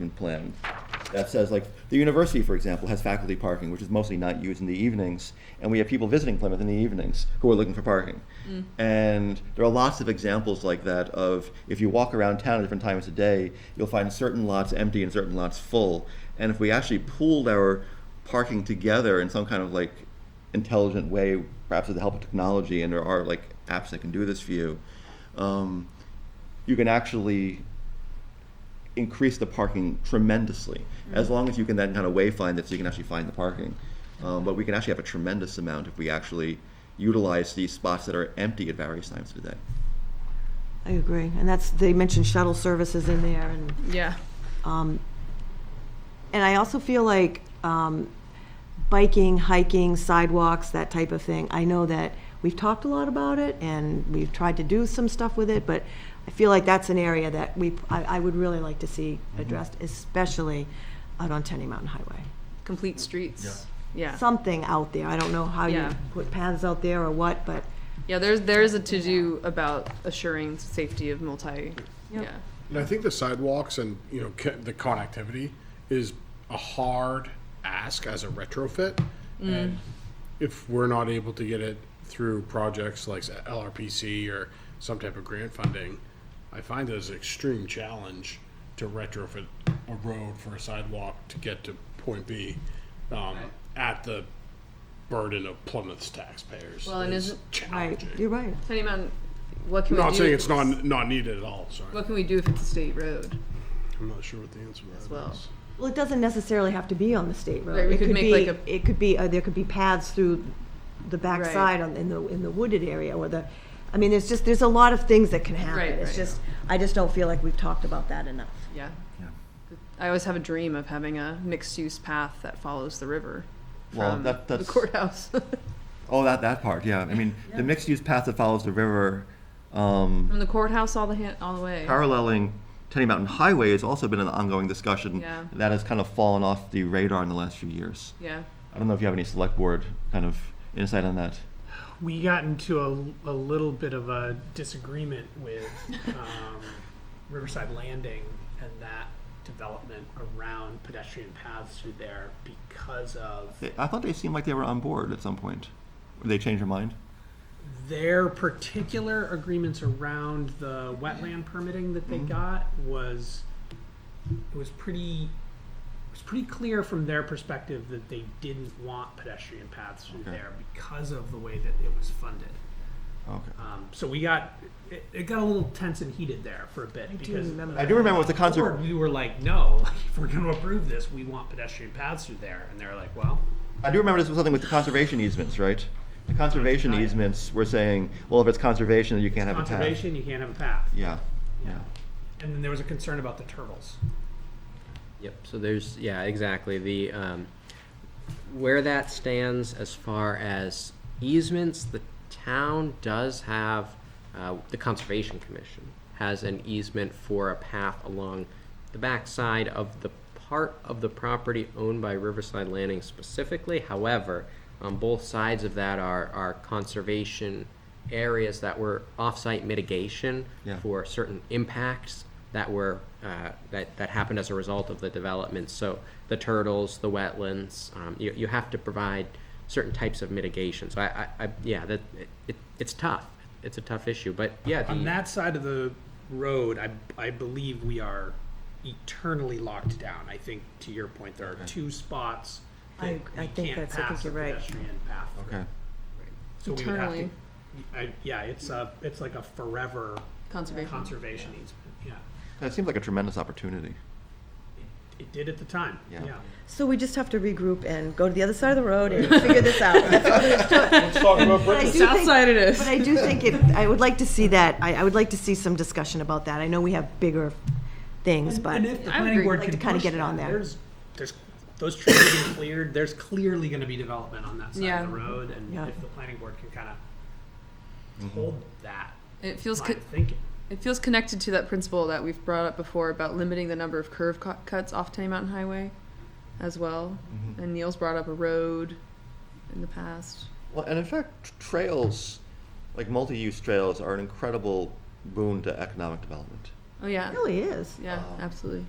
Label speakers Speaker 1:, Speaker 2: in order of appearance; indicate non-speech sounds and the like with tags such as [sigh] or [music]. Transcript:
Speaker 1: management plan that says, like, the university, for example, has faculty parking, which is mostly not used in the evenings, and we have people visiting Plymouth in the evenings who are looking for parking. And there are lots of examples like that of if you walk around town at different times of day, you'll find certain lots empty and certain lots full. And if we actually pooled our parking together in some kind of like intelligent way, perhaps with the help of technology, and there are like apps that can do this for you, um, you can actually increase the parking tremendously as long as you can then kind of wayfind it so you can actually find the parking. Um, but we can actually have a tremendous amount if we actually utilize these spots that are empty at various times of the day.
Speaker 2: I agree, and that's, they mentioned shuttle services in there, and,
Speaker 3: Yeah.
Speaker 2: and I also feel like um, biking, hiking, sidewalks, that type of thing, I know that we've talked a lot about it, and we've tried to do some stuff with it, but I feel like that's an area that we, I, I would really like to see addressed, especially out on Tenny Mountain Highway.
Speaker 3: Complete streets. Yeah.
Speaker 2: Something out there, I don't know how you
Speaker 3: Yeah.
Speaker 2: put paths out there or what, but
Speaker 3: Yeah, there's there is a to do about assuring safety of multi yeah.
Speaker 4: And I think the sidewalks and you know co- the connectivity is a hard ask as a retrofit,
Speaker 3: Mm.
Speaker 4: and if we're not able to get it through projects like LRPC or some type of grant funding, I find it as an extreme challenge to retrofit a road for a sidewalk to get to point B um, at the burden of Plymouth's taxpayers.
Speaker 3: Well, and
Speaker 4: It's
Speaker 3: isn't-
Speaker 2: Right,
Speaker 4: challenging?
Speaker 2: you're right.
Speaker 3: Tenny Mountain what can we
Speaker 4: I'm not
Speaker 3: do?
Speaker 4: saying
Speaker 3: if
Speaker 4: it's not not needed at all. Sorry,
Speaker 3: what can we do if it's a state road?
Speaker 4: I'm not sure what the answer to that is.
Speaker 3: well.
Speaker 2: Well, it doesn't necessarily have to be on the state road.
Speaker 3: Right, we
Speaker 2: It
Speaker 3: could make
Speaker 2: be-
Speaker 3: like a-
Speaker 2: It could be, uh, there could be paths through the
Speaker 3: Right.
Speaker 2: backside on, in the, in the wooded area or the, I mean, there's just, there's a lot of things that can happen.
Speaker 3: Right,
Speaker 2: It's
Speaker 3: right.
Speaker 2: just, I just don't feel like we've talked about that enough.
Speaker 3: Yeah. I always have a dream of having a mixed use path that follows the river
Speaker 1: Well,
Speaker 3: from
Speaker 1: that-
Speaker 3: the
Speaker 1: that's-
Speaker 3: courthouse. [laughs]
Speaker 1: Oh, that, that part, yeah. I mean, the mixed use path that follows the river, um,
Speaker 3: from the courthouse all the ha- all the way.
Speaker 1: paralleling Tenny Mountain Highway, has also been an ongoing discussion
Speaker 3: Yeah.
Speaker 1: that has kind of fallen off the radar in the last few years.
Speaker 3: Yeah.
Speaker 1: I don't know if you have any select board kind of insight on that.
Speaker 5: we got into a, a little bit of a disagreement with um, Riverside Landing and that development around pedestrian paths through there because of
Speaker 1: They- I thought they seemed like they were on board at some point. Did they change their mind?
Speaker 5: their particular agreements around the wetland permitting that they got was it was pretty it was pretty clear from their perspective that they didn't want pedestrian paths through
Speaker 1: Okay.
Speaker 5: there because of the way that it was funded.
Speaker 1: Okay.
Speaker 5: Um, so we got it, it got a little tense and heated there for a bit because
Speaker 2: remember
Speaker 1: I do remember with the concert.
Speaker 5: Board, we were like, no, [laughs] like, if we're going to approve this, we want pedestrian paths through there, and they're like, well,
Speaker 1: I do remember this was something with the conservation easements, right? The conservation
Speaker 5: Oh, yeah.
Speaker 1: easements were saying, well, if it's conservation, then you can't have a path.
Speaker 5: conservation, you can't have a path.
Speaker 1: Yeah, yeah.
Speaker 5: And then there was a concern about the turtles.
Speaker 6: Yep, so there's, yeah, exactly, the, um, where that stands as far as easements, the town does have, uh, the Conservation Commission has an easement for a path along the backside of the part of the property owned by Riverside Landing specifically, however, on both sides of that are, are conservation areas that were off-site mitigation
Speaker 1: Yeah.
Speaker 6: for certain impacts that were uh, that that happened as a result of the development. So the turtles, the wetlands, um, you you have to provide certain types of mitigation. So I, I, I yeah, that it, it's tough. It's a tough issue, but yeah, the,
Speaker 5: On that side of the road, I, I believe we are eternally locked down. I think, to your point, there are two spots that
Speaker 2: I- I
Speaker 5: we
Speaker 2: think
Speaker 5: can't
Speaker 2: that's- I think
Speaker 5: pass
Speaker 2: you're
Speaker 5: a
Speaker 2: right.
Speaker 5: pedestrian path through.
Speaker 1: Okay.
Speaker 5: So we would have to,
Speaker 3: Eternally.
Speaker 5: I, yeah, it's a, it's like a forever
Speaker 3: Conservation.
Speaker 5: conservation easement, yeah.
Speaker 1: That seems like a tremendous opportunity.
Speaker 5: It did at the time,
Speaker 1: Yeah.
Speaker 5: yeah.
Speaker 2: So we just have to regroup and go to the other side of the road
Speaker 3: [laughs]
Speaker 2: and figure this out. That's all there is to it. But I do
Speaker 3: South
Speaker 2: think-
Speaker 3: side it is.
Speaker 2: But I do think it, I would like to see that, I, I would like to see some discussion about that. I know we have bigger things, but.
Speaker 5: And if the
Speaker 3: I would
Speaker 5: planning
Speaker 3: agree.
Speaker 5: board
Speaker 2: Like
Speaker 5: can
Speaker 2: to kinda
Speaker 5: push
Speaker 2: get it on
Speaker 5: that,
Speaker 2: there.
Speaker 5: There's, there's, those trees have been cleared, there's clearly gonna be development on that side
Speaker 3: Yeah.
Speaker 5: of the road, and
Speaker 2: Yeah.
Speaker 5: if the planning board can kinda hold that
Speaker 3: It feels
Speaker 5: line
Speaker 3: co-
Speaker 5: of thinking.
Speaker 3: It feels connected to that principle that we've brought up before about limiting the number of curve cu- cuts off Tenny Mountain Highway as well. And Neil's brought up a road in the past.
Speaker 1: Well, and in fact, t- trails, like multi-use trails, are an incredible boon to economic development.
Speaker 3: Oh, yeah.
Speaker 2: It really is.
Speaker 3: Yeah, absolutely.